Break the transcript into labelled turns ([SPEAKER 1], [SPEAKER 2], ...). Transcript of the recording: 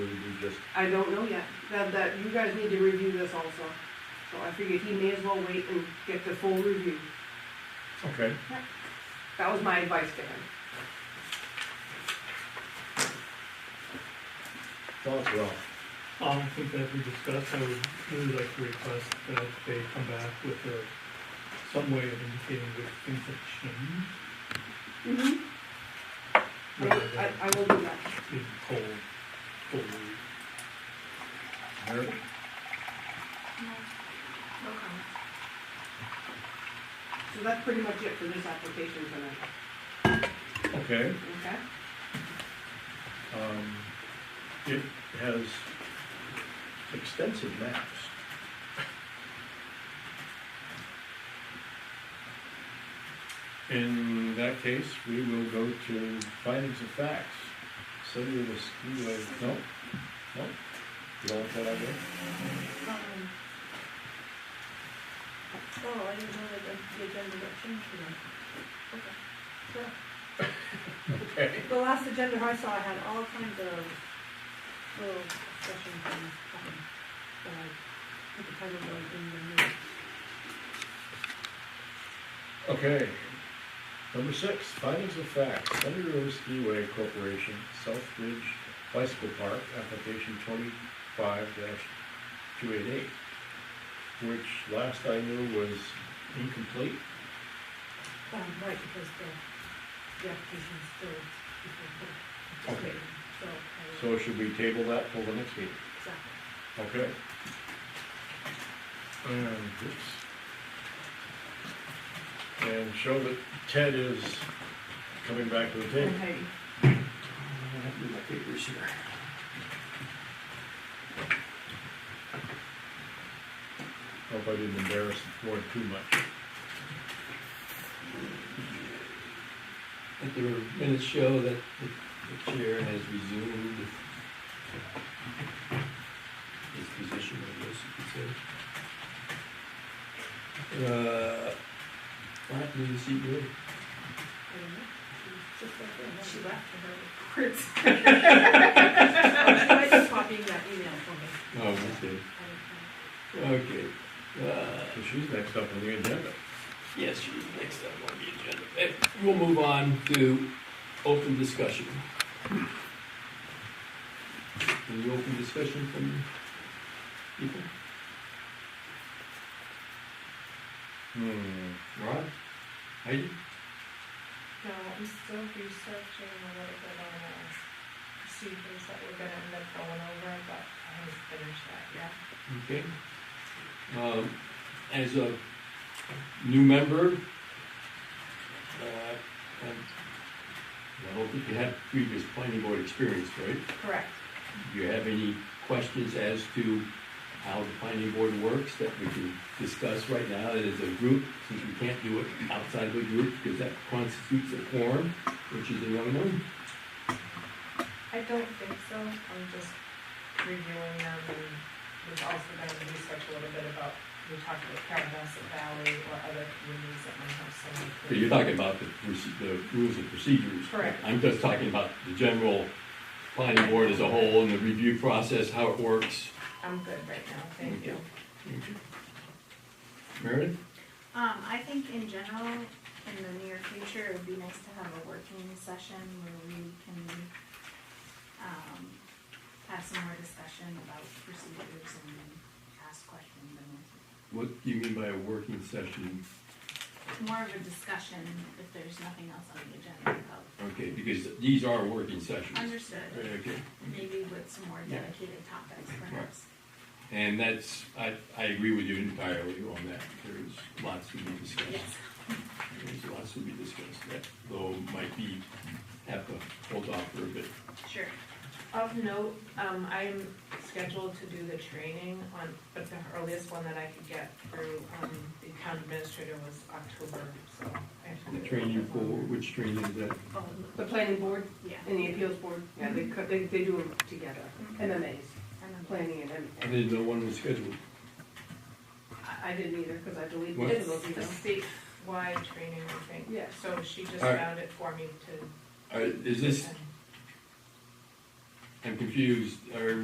[SPEAKER 1] just,
[SPEAKER 2] I don't know yet, that, that, you guys need to review this also. So I figured he may as well wait and get the full review.
[SPEAKER 1] okay.
[SPEAKER 2] That was my advice to him.
[SPEAKER 1] Thoughts, Ralph?
[SPEAKER 3] Um, I think that we discussed, I would really like to request that they come back with a, some way of indicating which things have changed,
[SPEAKER 2] Mm-hmm.
[SPEAKER 3] rather
[SPEAKER 2] I,
[SPEAKER 3] than
[SPEAKER 2] I will do that.
[SPEAKER 3] being told, told.
[SPEAKER 1] Eric?
[SPEAKER 2] So that's pretty much it for this application tonight,
[SPEAKER 1] Okay,
[SPEAKER 2] okay?
[SPEAKER 1] um, it has extensive maps. In that case, we will go to findings of facts, city of the skiway, no, no, you don't want that idea?
[SPEAKER 4] Um, Oh, I didn't know that the the agenda got changed today. Okay.
[SPEAKER 1] Okay.
[SPEAKER 4] The last agenda I saw had all kinds of little discussion things happening, but I, at the time of the, in the news.
[SPEAKER 1] Okay. Number six, findings of fact, Thunder Road Skiway Corporation, South Ridge Bicycle Park, application twenty-five two eight eight, which last I knew was incomplete.
[SPEAKER 4] Um, right, because the, the application's still before court.
[SPEAKER 1] Okay.
[SPEAKER 4] So, I will-
[SPEAKER 1] So should we table that till the next meeting?
[SPEAKER 4] exactly.
[SPEAKER 1] Okay. And, oops. And show that Ted is coming back to the table.
[SPEAKER 2] Okay.
[SPEAKER 1] I have to do my papers here. Hope I didn't embarrass the board too much.
[SPEAKER 5] Let the minutes show that the- the chair has resumed his position, I guess you could say. Uh, what happened to the E CEO?
[SPEAKER 4] I don't know. She was just like that, when she left for her words. She might be copying that email for me.
[SPEAKER 5] Oh, okay.
[SPEAKER 4] I don't know.
[SPEAKER 5] Okay. Uh,
[SPEAKER 1] So she's next up on the agenda.
[SPEAKER 5] Yes, she was next up on the agenda. Eh, We'll move on to open discussion. Any open discussion from people?
[SPEAKER 1] Hmm,
[SPEAKER 5] Rod? Heidi?
[SPEAKER 6] No, I'm still researching a little bit on the procedures that we're gonna end up going over, but I haven't finished that yet.
[SPEAKER 5] Okay. Um, as a new member, uh, I'm- I don't think you have previous planning board experience, right?
[SPEAKER 6] Correct.
[SPEAKER 5] Do you have any questions as to how the planning board works that we can discuss right now as a group? Since we can't do it outside of a group because that constitutes a quorum, which is a no-no.
[SPEAKER 6] I don't think so, I'm just reviewing them and we've also done the research a little bit about, we talked about Caravasset Valley or other communities that might have some.
[SPEAKER 5] So you're talking about the, proce- the rules and procedures.
[SPEAKER 6] Correct.
[SPEAKER 5] I'm just talking about the general planning board as a whole and the review process, how it works.
[SPEAKER 6] I'm good right now, thank you.
[SPEAKER 5] Meredith?
[SPEAKER 7] Um, I think in general, in the near future, it would be nice to have a working session where we can, um, have some more discussion about procedures and ask questions and
[SPEAKER 5] What do you mean by a working session?
[SPEAKER 7] more of a discussion if there's nothing else on the agenda about.
[SPEAKER 5] Okay, because these are working sessions.
[SPEAKER 7] Understood,
[SPEAKER 5] Okay.
[SPEAKER 7] maybe with some more dedicated topics perhaps.
[SPEAKER 5] And that's, I, I agree with you entirely on that. There's lots to be discussed.
[SPEAKER 7] Yes,
[SPEAKER 5] There's lots to be discussed that though might be, have to hold off for a bit.
[SPEAKER 7] sure.
[SPEAKER 6] Of note, um, I'm scheduled to do the training on, but the earliest one that I could get through, um, the town administrator was October, so. I have to
[SPEAKER 5] The
[SPEAKER 6] do it.
[SPEAKER 5] training for, which training is that?
[SPEAKER 7] Oh,
[SPEAKER 2] The planning board
[SPEAKER 7] yeah,
[SPEAKER 2] and the appeals board, yeah, they, co- they, they do them together, MMAs,
[SPEAKER 7] and then
[SPEAKER 2] planning and
[SPEAKER 5] I
[SPEAKER 2] MMA.
[SPEAKER 5] didn't know one was scheduled.
[SPEAKER 2] I, I didn't either, cause I deleted
[SPEAKER 5] What?
[SPEAKER 2] both
[SPEAKER 6] It's
[SPEAKER 2] of those
[SPEAKER 6] a
[SPEAKER 2] emails.
[SPEAKER 6] statewide training, I think.
[SPEAKER 2] Yeah.
[SPEAKER 6] So she just
[SPEAKER 5] Alright.
[SPEAKER 6] found it for me to.
[SPEAKER 5] All right, Is this,
[SPEAKER 6] attend.
[SPEAKER 5] I'm confused, are